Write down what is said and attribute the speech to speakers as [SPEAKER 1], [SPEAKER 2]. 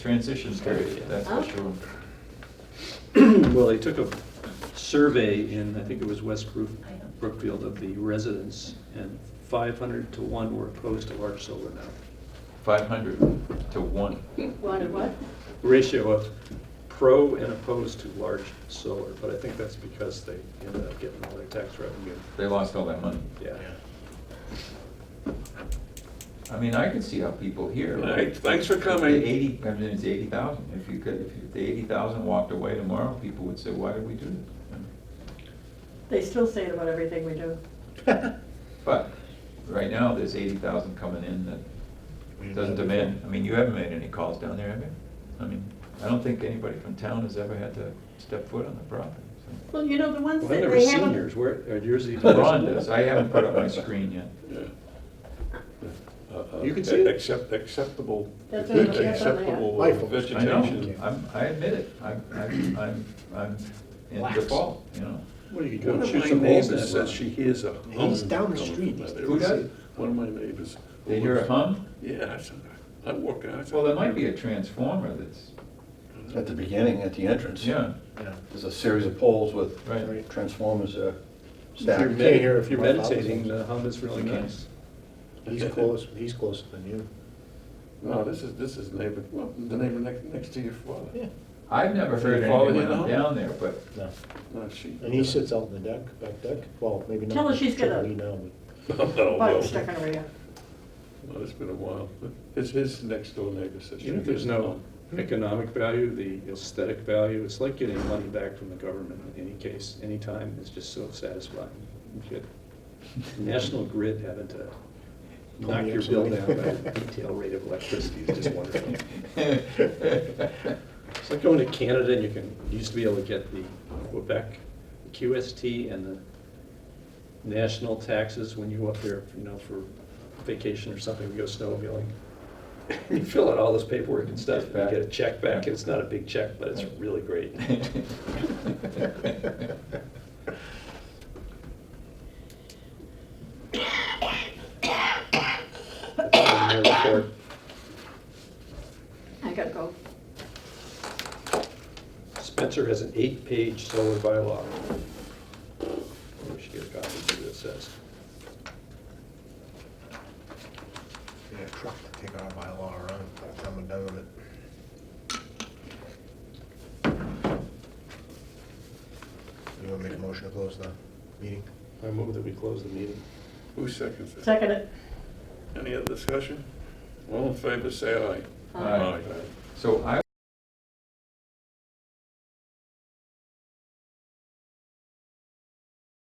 [SPEAKER 1] transition period, that's for sure.
[SPEAKER 2] Well, they took a survey in, I think it was West Brook- Brookfield, of the residents, and 500 to 1 were opposed to large solar now.
[SPEAKER 1] Five hundred to one.
[SPEAKER 3] One of what?
[SPEAKER 2] Ratio of pro and opposed to large solar, but I think that's because they ended up getting all their tax revenue.
[SPEAKER 1] They lost all that money.
[SPEAKER 2] Yeah.
[SPEAKER 1] I mean, I could see how people here.
[SPEAKER 4] All right, thanks for coming.
[SPEAKER 1] If the Eighty, I mean, it's eighty thousand, if you could, if you- if the eighty thousand walked away tomorrow, people would say, why did we do this?
[SPEAKER 3] They still say it about everything we do.
[SPEAKER 1] But, right now, there's eighty thousand coming in that doesn't demand, I mean, you haven't made any calls down there, have you? I mean, I don't think anybody from town has ever had to step foot on the property, so.
[SPEAKER 3] Well, you know, the ones
[SPEAKER 2] Well,
[SPEAKER 3] that
[SPEAKER 2] they were
[SPEAKER 3] they haven't.
[SPEAKER 2] seniors, where, are yours even?
[SPEAKER 1] Ron does, I haven't put up my screen yet.
[SPEAKER 2] You can see it.
[SPEAKER 4] Accept, acceptable,
[SPEAKER 3] That's what I'm looking at on the app.
[SPEAKER 4] acceptable
[SPEAKER 5] Rifle.
[SPEAKER 1] I know,
[SPEAKER 4] vegetation.
[SPEAKER 1] I'm, I admit it, I'm, I'm, I'm- I'm in
[SPEAKER 5] Blacks.
[SPEAKER 1] default, you know.
[SPEAKER 2] What, you could go
[SPEAKER 4] One
[SPEAKER 2] and
[SPEAKER 4] of
[SPEAKER 2] shoot
[SPEAKER 4] my
[SPEAKER 2] some holes in
[SPEAKER 4] neighbors uh,
[SPEAKER 2] that
[SPEAKER 4] says
[SPEAKER 2] rock.
[SPEAKER 4] she hears a hum.
[SPEAKER 5] He's down the
[SPEAKER 4] coming
[SPEAKER 5] street.
[SPEAKER 4] from that
[SPEAKER 5] Who
[SPEAKER 4] area.
[SPEAKER 1] does?
[SPEAKER 4] One of my neighbors.
[SPEAKER 1] They hear a hum?
[SPEAKER 4] Yeah, I said, I'm walking out. I said,
[SPEAKER 1] Well, there might be a transformer that's,
[SPEAKER 6] At the beginning, at the entrance.
[SPEAKER 1] yeah,
[SPEAKER 5] Yeah.
[SPEAKER 6] There's a series of poles with
[SPEAKER 1] right.
[SPEAKER 6] transformers uh,
[SPEAKER 2] If you're
[SPEAKER 6] stacked.
[SPEAKER 5] med-
[SPEAKER 2] med- if you're
[SPEAKER 5] My father's
[SPEAKER 2] meditating,
[SPEAKER 5] house.
[SPEAKER 2] the hum is really nice.
[SPEAKER 5] He's close, he's closer than you.
[SPEAKER 4] No, this is, this is neighbor, well, the neighbor next, next to your father.
[SPEAKER 1] I've never heard
[SPEAKER 4] They follow
[SPEAKER 1] anyone
[SPEAKER 4] you now?
[SPEAKER 1] down there, but
[SPEAKER 5] No.
[SPEAKER 4] No, she.
[SPEAKER 5] And he sits out in the deck, back deck, well, maybe not.
[SPEAKER 3] Tell her she's gonna-
[SPEAKER 5] We know,
[SPEAKER 4] No, no,
[SPEAKER 3] Butt stuck in her ear.
[SPEAKER 4] Well, it's been a while. It's his next door neighbor says. she
[SPEAKER 2] You know, there's
[SPEAKER 4] hears a
[SPEAKER 2] no
[SPEAKER 4] hum.
[SPEAKER 2] economic value, the aesthetic value, it's like getting money back from the government in any case, anytime, it's just so satisfying. You get National Grid having to knock your bill down by a detail rate of electricity is just wonderful. It's like going to Canada and you can, you used to be able to get the Quebec QST and the national taxes when you go up there, you know, for vacation or something, we go snowmobiling. You fill out all this paperwork and stuff, and you get a check back, it's not a big check, but it's really great. That's all in my report.
[SPEAKER 3] I gotta go.
[SPEAKER 2] Spencer has an eight-page solar bylaw. Maybe We should get a copy of what it says.
[SPEAKER 5] we need a truck to take our bylaw around by the time we're done with it. You wanna make a motion to close the meeting?
[SPEAKER 2] I move that we close the meeting.
[SPEAKER 4] Who seconds it?
[SPEAKER 3] Second it.
[SPEAKER 4] Any other discussion? All in favor, say aye.
[SPEAKER 1] Aye. So I